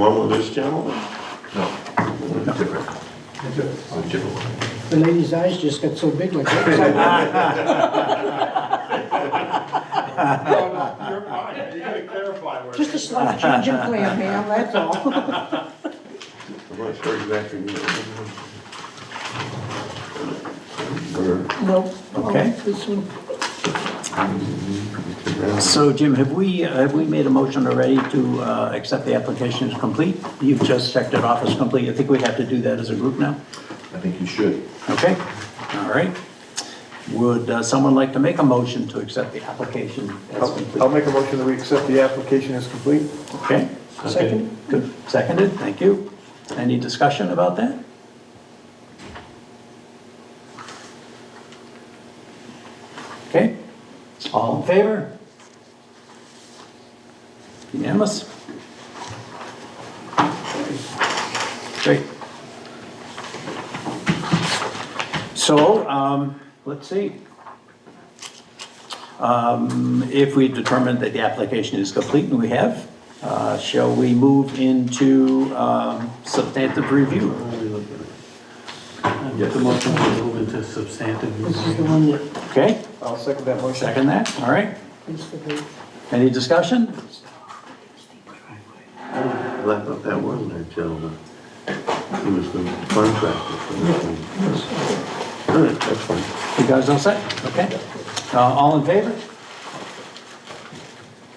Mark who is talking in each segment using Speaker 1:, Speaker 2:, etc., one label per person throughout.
Speaker 1: One with this gentleman?
Speaker 2: No, different. A different one.
Speaker 3: The lady's eyes just got so big like that.
Speaker 4: You're fine, you gotta clarify where.
Speaker 3: Just a slight change in plan, ma'am, that's all.
Speaker 1: I'm not sure exactly.
Speaker 3: No.
Speaker 5: Okay.
Speaker 3: This one.
Speaker 5: So Jim, have we, uh, have we made a motion already to uh, accept the application as complete? You've just checked it off as complete. I think we have to do that as a group now.
Speaker 2: I think you should.
Speaker 5: Okay, all right. Would uh, someone like to make a motion to accept the application
Speaker 2: Oh.
Speaker 5: as
Speaker 4: I'll
Speaker 5: complete?
Speaker 4: make a motion that we accept the application as complete.
Speaker 5: Okay,
Speaker 3: Second.
Speaker 5: good, seconded, thank you. Any discussion about that? Okay, all in favor? Unanimous? Great. So, um, let's see. Um, if we determine that the application is complete, and we have, uh, shall we move into, um, substantive review?
Speaker 6: Make the motion to move into substantive
Speaker 3: This is
Speaker 6: review.
Speaker 3: the one that,
Speaker 5: Okay,
Speaker 4: I'll second that motion.
Speaker 5: second that, all right.
Speaker 3: it's the big.
Speaker 5: Any discussion?
Speaker 1: I thought that wasn't that gentleman. He was the contractor. for that one. All right, that's fine.
Speaker 5: You guys all set? Okay. Uh, all in favor?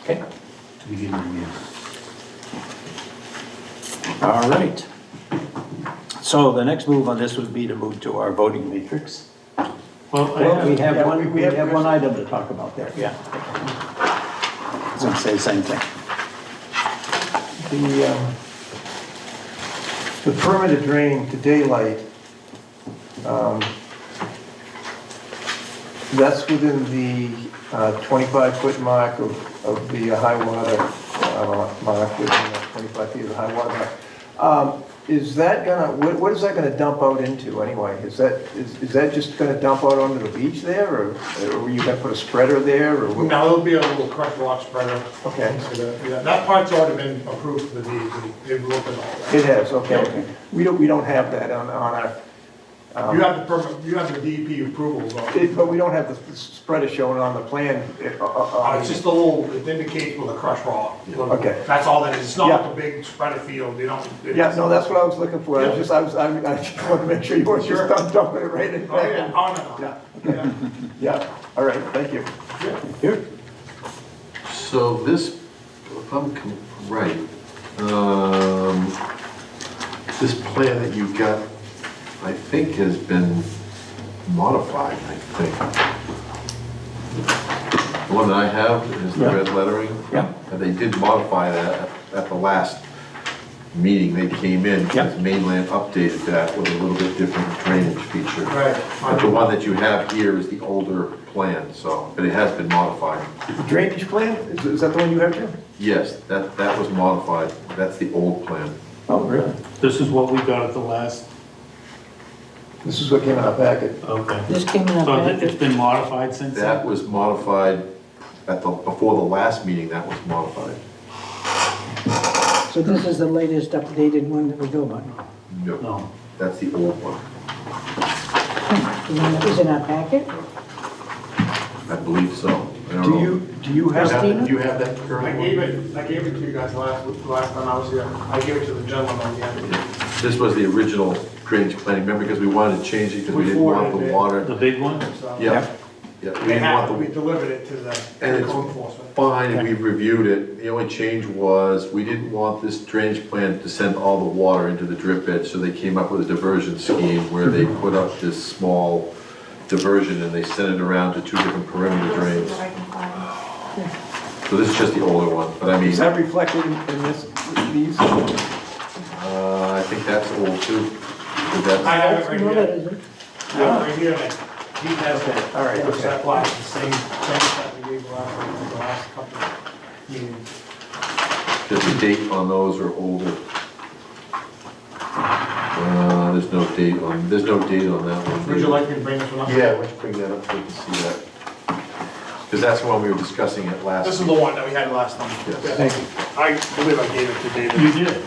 Speaker 5: Okay,
Speaker 6: To begin with.
Speaker 5: all right. So the next move on this would be to move to our voting matrix.
Speaker 6: Well,
Speaker 5: Well, we
Speaker 6: I-
Speaker 5: have
Speaker 4: yeah, we-
Speaker 5: one,
Speaker 4: we
Speaker 5: we
Speaker 4: have-
Speaker 5: have one item to talk about there, yeah. I was gonna say the same thing.
Speaker 4: The, um, the permitted drain to daylight, um, that's within the uh, 25-foot mark of, of the high water uh, mark, within the 25 feet of the high water mark. Um, Is that gonna, what, what is that gonna dump out into anyway? Is that, is, is that just gonna dump out onto the beach there, or, or you gonna put a spreader there, or? what-
Speaker 7: Now, there'll be a little crushed rock spreader.
Speaker 4: Okay.
Speaker 7: So that- yeah, That part's already been approved for the DEP, they've looked at all that.
Speaker 4: It has, okay. We don't, we don't have that on, on our,
Speaker 7: You have the permit, you have the DEP approval, though.
Speaker 4: it- but we don't have the s- spreader shown on the plan. it- uh, uh,
Speaker 7: Uh,
Speaker 4: uh,
Speaker 7: It's just a little, it indicates with a crushed rock.
Speaker 4: Okay.
Speaker 7: That's all that is, it's not
Speaker 4: Yeah.
Speaker 7: like a big spreader field, you don't. it's-
Speaker 4: Yeah, no, that's what I was looking for, I was
Speaker 7: Yeah.
Speaker 4: just, I was, I I just wanted to make sure you weren't just
Speaker 7: Sure.
Speaker 4: dump- dumping it right in.
Speaker 7: Oh, yeah, oh,
Speaker 4: Yeah,
Speaker 7: no, no. Yeah.
Speaker 4: yeah, all right, thank you.
Speaker 5: Here.
Speaker 2: So this, if I'm com- right, um, this plan that you got, I think has been modified, I think. The one that I have is the
Speaker 5: Yeah.
Speaker 2: red lettering.
Speaker 5: Yeah.
Speaker 2: And they did modify that at the last meeting they came in. because
Speaker 5: Yeah.
Speaker 2: Mainland updated that with a little bit different drainage feature.
Speaker 7: Right.
Speaker 2: But the one that you have here is the older plan, so, but it has been modified.
Speaker 4: The Drainage plan, is is that the one you have, Jim?
Speaker 2: Yes, that, that was modified. That's the old plan.
Speaker 5: Oh, really?
Speaker 6: This is what we got at the last,
Speaker 4: This is what came in our packet.
Speaker 6: okay.
Speaker 3: This came in a
Speaker 6: So th- it's
Speaker 3: packet.
Speaker 6: been modified since then?
Speaker 2: That was modified at the, before the last meeting, that was modified.
Speaker 3: So this is the latest updated one that we go by.
Speaker 2: No,
Speaker 6: No.
Speaker 2: that's the old one.
Speaker 3: The one that was in our packet?
Speaker 2: I believe so. I don't
Speaker 4: Do
Speaker 2: know.
Speaker 4: you, do you have?
Speaker 2: Do you have that
Speaker 7: I
Speaker 2: current
Speaker 7: gave
Speaker 2: one?
Speaker 7: it, I gave it to you guys last, last time I was here, I gave it to the gentleman, yeah.
Speaker 2: This was the original drainage plan, remember, because we wanted to change it because we didn't want the
Speaker 6: The
Speaker 2: water.
Speaker 6: big one?
Speaker 7: So-
Speaker 2: Yeah, yeah, we
Speaker 7: They
Speaker 2: didn't
Speaker 7: have,
Speaker 2: want
Speaker 7: we
Speaker 2: the,
Speaker 7: delivered it to the
Speaker 2: And
Speaker 7: the
Speaker 2: it's-
Speaker 7: code enforcement.
Speaker 2: fine, and we reviewed it. The only change was, we didn't want this drainage plan to send all the water into the drip bed, so they came up with a diversion scheme where they put up this small diversion and they sent it around to two different perimeter drains. So this is just the older one, but I mean,
Speaker 4: Is that reflected in in this, these?
Speaker 2: uh, I think that's old too. Is
Speaker 7: I
Speaker 2: that-
Speaker 7: have it right
Speaker 3: No, that
Speaker 7: here.
Speaker 3: isn't.
Speaker 7: I have it right here, and he has it.
Speaker 4: All right,
Speaker 7: It's
Speaker 4: okay.
Speaker 7: that black, the same, same stuff we gave last, time, the last couple of meetings.
Speaker 2: Does the date on those are older? Uh, there's no date on, there's no date on that one.
Speaker 7: Would you like me to bring this one up?
Speaker 2: Yeah, let's bring that up so we can see that. Because that's the one we were discussing at last.
Speaker 7: This is
Speaker 2: meeting.
Speaker 7: the one that we had last time.
Speaker 2: Yes.
Speaker 7: Yeah. I believe I gave it to David.
Speaker 6: You did.